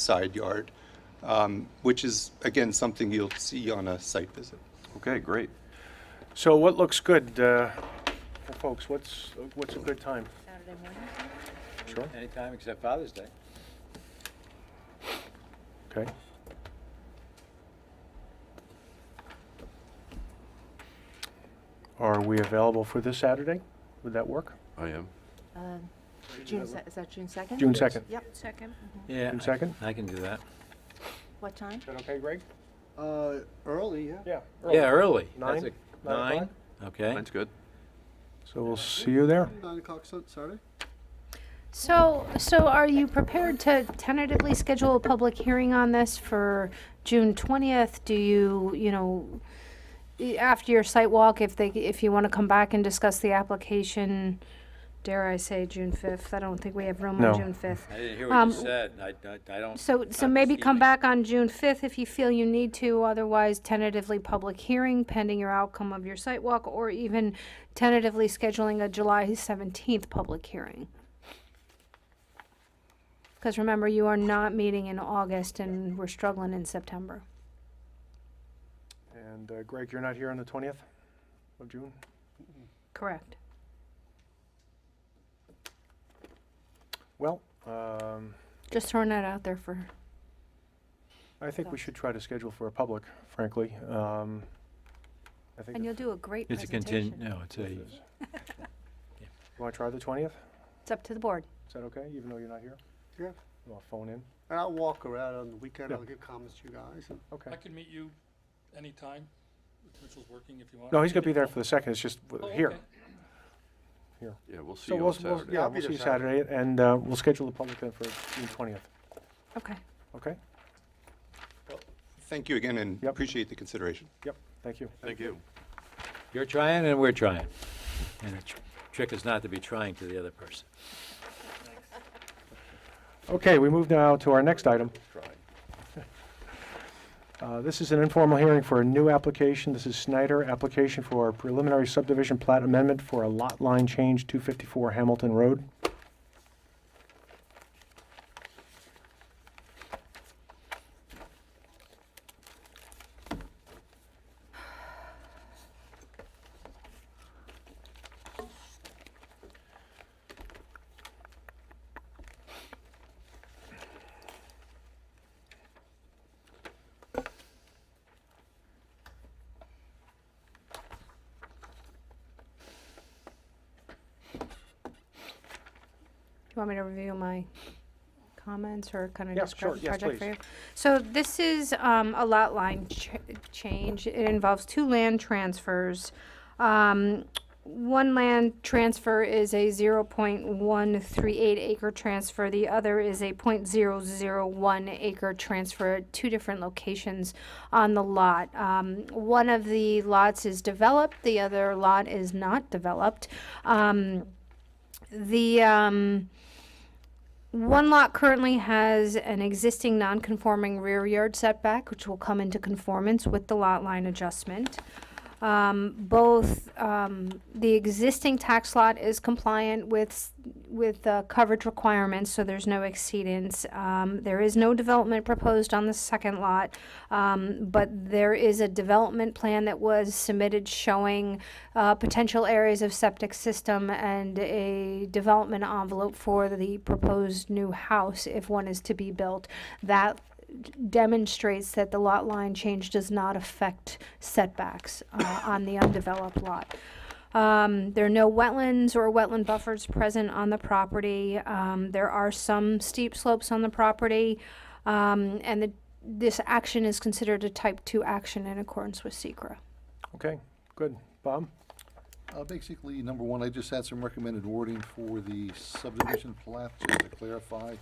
side yard, um, which is, again, something you'll see on a site visit. Okay, great. So what looks good, uh, for folks, what's, what's a good time? Saturday morning? Sure. Anytime except Father's Day. Okay. Are we available for this Saturday? Would that work? I am. Um, June, se- is that June 2nd? June 2nd? Yep. Second. Yeah. June second? I can do that. What time? Is that okay, Greg? Uh, early, yeah. Yeah. Yeah, early. Nine? That's a- Nine Nine? Okay. Mine's good. So we'll see you there. Nine o'clock Sun- Saturday. So, so are you prepared to tentatively schedule a public hearing on this for June twentieth? Do you, you know, i- after your site walk, if they, if you want to come back and discuss the application, dare I say, June fifth? I don't think we have room No. on June fifth. I didn't hear Um, what you said. I, I- I don't. So, not so maybe this come evening. back on June fifth if you feel you need to, otherwise tentatively public hearing pending your outcome of your site walk, or even tentatively scheduling a July seventeenth public hearing. Because remember, you are not meeting in August and we're struggling in September. And uh, Greg, you're not here on the twentieth of June? Correct. Well, um, Just throwing that out there for, I think we should try to schedule for a public, frankly. Um, I think, and you'll the- do a great It's a continu, presentation. no, it's a, you want to try the twentieth? It's up to the board. Is that okay, even though you're not here? Yeah. I'll phone in. And I'll walk around on the weekend. Yeah. I'll give comments to you guys. and- Okay. I can meet you anytime. if Mitchell's working if you want. No, he's gonna be there for the second, it's just Oh, w- here. okay. Yeah, we'll see So you we'll, on we'll- Saturday. yeah, I'll we'll be see there you Saturday, and uh, we'll schedule the public then for June twentieth, Okay. okay? Thank you again and Yep. appreciate the consideration. Yep, thank you. Thank you. you're trying and we're trying. And the tr- trick is not to be trying to the other person. Okay, we move now to our next item. Uh, This is an informal hearing for a new application. This is Snyder, application for preliminary subdivision plat amendment for a lot line change, 254 Hamilton Road. Do you want me to review my comments or kind of Yeah, describe sure. the Yes, project for please. you? So this is um, a lot line ch- change. It involves two land transfers. Um, One land transfer is a 0.138 acre transfer. The other is a .001 acre transfer at two different locations on the lot. Um, One of the lots is developed, the other lot is not developed. Um, the um, one lot currently has an existing non-conforming rear yard setback, which will come into conformance with the lot line adjustment. Um, both um, the existing tax lot is compliant with s- with uh, coverage requirements, so there's no exceedance. Um, there is no development proposed on the second lot, um, but there is a development plan that was submitted showing uh, potential areas of septic system and a development envelope for the proposed new house if one is to be built. That demonstrates that the lot line change does not affect setbacks uh, on the undeveloped lot. Um, There are no wetlands or wetland buffers present on the property. Um, There are some steep slopes on the property, um, and the- this action is considered a type 2 action in accordance with Secra. Okay, good. Bob? Uh, Basically, number one, I just had some recommended wording for the subdivision plat, just to clarify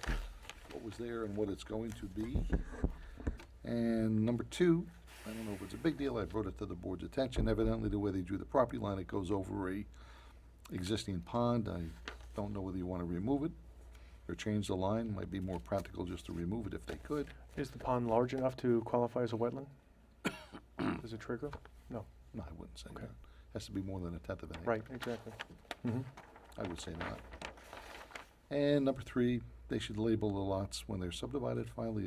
what was there and what it's going to be. And number two, I don't know if it's a big deal, I brought it to the board's attention, evidently the way they drew the property line, it goes over a existing pond, I don't know whether you want to remove it or change the line, might be more practical just to remove it if they could. Is the pond large enough to qualify as a wetland? Does it trigger? No, No, I wouldn't say Okay. that, has to be more than a tenth of an acre. right, exactly. Mhm. I would say not. And number three, they should label the lots when they're subdivided finally